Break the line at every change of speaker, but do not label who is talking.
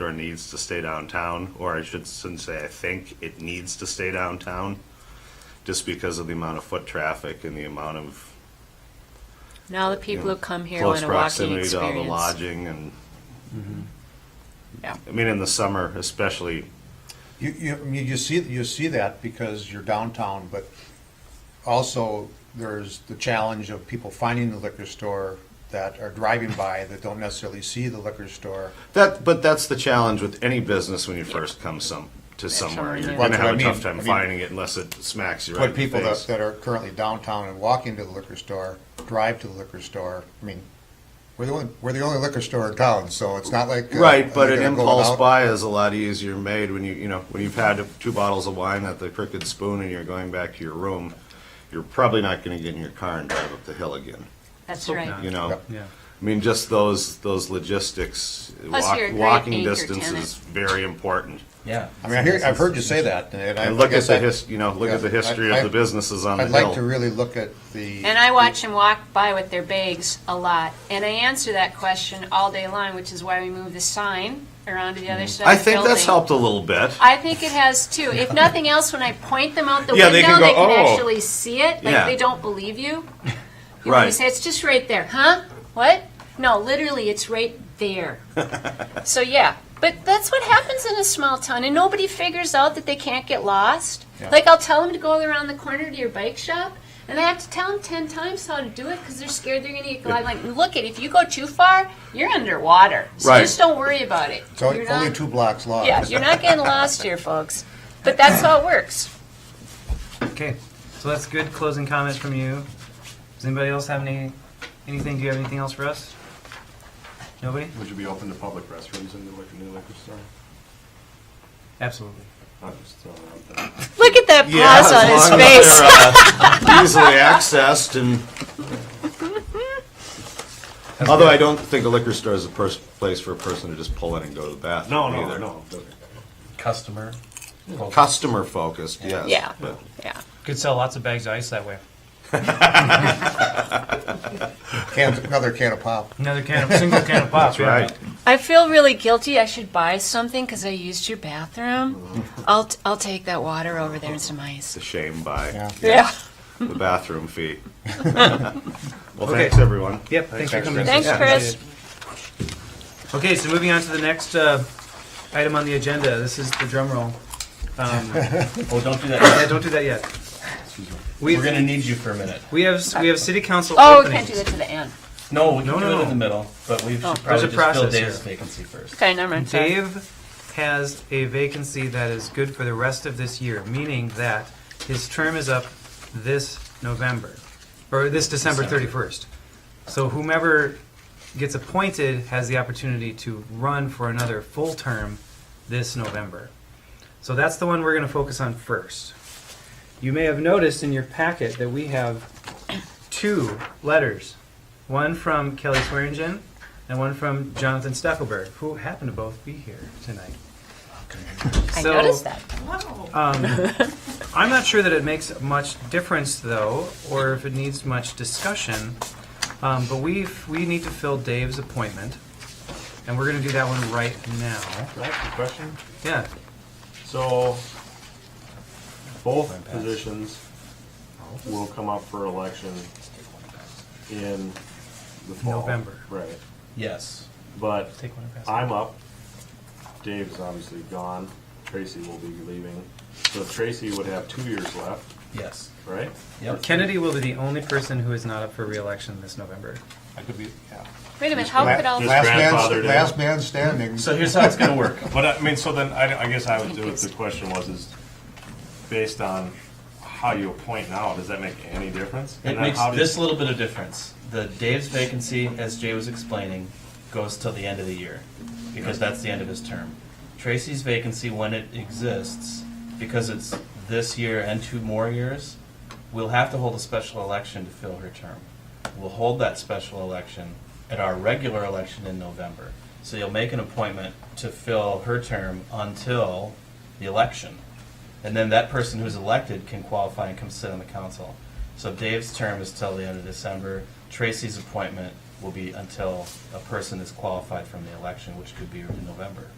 or needs to stay downtown, or I should shouldn't say I think it needs to stay downtown, just because of the amount of foot traffic and the amount of
Now the people who come here
close
want a walking
proximity to all the
experience.
lodging and,
Yeah.
I mean, in the summer especially,
You, you, I mean, you see, you see that because you're downtown, but also there's the challenge of people finding the liquor store that are driving by that don't necessarily see the liquor store.
That, but that's the challenge with any business when you first come some to somewhere.
somewhere
You're
new.
going to
That's what
have
I
a tough
mean.
time
I mean-
finding it unless it smacks you right
But
in the
people that,
face.
that are currently downtown and walking to the liquor store, drive to the liquor store, I mean, we're the only, we're the only liquor store in town, so it's not like. uh,
Right, but
they're
an
gonna go
impulse
out-
buy is a lot easier made when you, you know, when you've had two bottles of wine at the Crooked Spoon and you're going back to your room, you're probably not going to get in your car and drive up the hill again,
That's right.
you know?
Yep.
Yeah.
I mean, just those, those logistics,
Plus
walk-
you're a great
walking
anchor
distance
tenant.
is very important.
Yeah.
I mean, I hear, I've heard you say that, and I
And look at
guess
the
I,
his, you know, look
yeah,
at the history
I-
of
I-
the businesses on the
I'd like to
hill.
really look at the.
And I watch them walk by with their bags a lot, and I answer that question all day long, which is why we moved the sign around to the other side
I
of the building.
think that's helped a little bit.
I think it has too. If nothing else, when I point them out the
Yeah,
window,
they
they
can
can
go, "Oh."
actually see it,
Yeah.
like they don't believe you. You
Right.
want to say, it's just right there, huh? What? No, literally, it's right there. So, yeah. But that's what happens in a small town, and nobody figures out that they can't get lost.
Yeah.
Like, I'll tell them to go around the corner to your bike shop, and I have to tell them ten times how to do it, because they're scared they're gonna get caught. I'm like, look, it, if you go too far, you're underwater. So
Right.
just don't worry about it.
It's only
You're
only
not-
two blocks long.
yeah, you're not getting lost here, folks. But that's how it works.
Okay, so that's good closing comments from you. Does anybody else have any, anything, do you have anything else for us? Nobody?
Would you be open to public restrooms in the liquor, new liquor store?
Absolutely.
I'm just throwing it out there.
Look at that
Yeah,
pause
as
on his
long as
face.
they're, uh, easily accessed and. Although I don't think a liquor store is a pers- place for a person to just pull in and go to the bathroom
No, no,
either.
no.
customer.
Customer focused, yes.
Yeah.
but-
Yeah.
Could sell lots of bags of ice that way.
Can, another can of pop.
Another can of, single can of pop,
That's right.
I feel really guilty. I should buy something because I used your bathroom.
Mm-hmm.
I'll, t- I'll take that water over there and some
It's
ice.
a shame by
Yeah.
Yeah.
the bathroom fee. Well,
Okay.
thanks, everyone.
Yep, thanks for coming.
Thanks,
Yeah.
Chris.
Okay, so moving on to the next, uh, item on the agenda, this is the drum roll. Um,
Oh, don't do that.
yeah, don't do that yet. We,
We're gonna need you for a minute.
we have, we have city council
Oh, we can't do
openings.
that to the end.
No, we can
No,
do
no,
it
no.
in the middle, but we should
Oh.
There's a
probably just fill
process
Dave's
here.
vacancy first.
Okay, never mind. sorry.
Dave has a vacancy that is good for the rest of this year, meaning that his term is up this November, or this December
December.
31st. So whomever gets appointed has the opportunity to run for another full term this November. So that's the one we're going to focus on first. You may have noticed in your packet that we have two letters, one from Kelly Swearingen and one from Jonathan Stackelberg, who happen to both be here tonight.
I
So,
noticed that.
I'm not sure that it makes much difference, though, or if it needs much discussion. Um, but we we need to fill Dave's appointment, and we're going to do that one right now.
Can I ask a question?
Yeah,
So, both positions will come up for election in the fall.
November.
Right,
Yes.
but
take one. and pass it.
I'm up. Dave's obviously gone. Tracy will be leaving. So Tracy would have two years left,
Yes.
right?
Yep.
Kennedy will be the only person who is not up for re-election this November.
I could be, yeah.
Wait a minute. How
La-
could all.
Just
Last
grandfathered
man,
in.
last man standing.
So here's how it's gonna work.
But I mean, so then, I, I guess I would do it, the question was, is based on how you appoint now, does that make any difference?
It
And then
makes
how did-
this little bit of difference. The Dave's vacancy, as Jay was explaining, goes till the end of the year, because that's the end of his term. Tracy's vacancy, when it exists, because it's this year and two more years, we'll have to hold a special election to fill her term. We'll hold that special election at our regular election in November. So you'll make an appointment to fill her term until the election. And then that person who's elected can qualify and come sit on the council. So Dave's term is till the end of December. Tracy's appointment will be until a person is qualified from the election, which could be in November.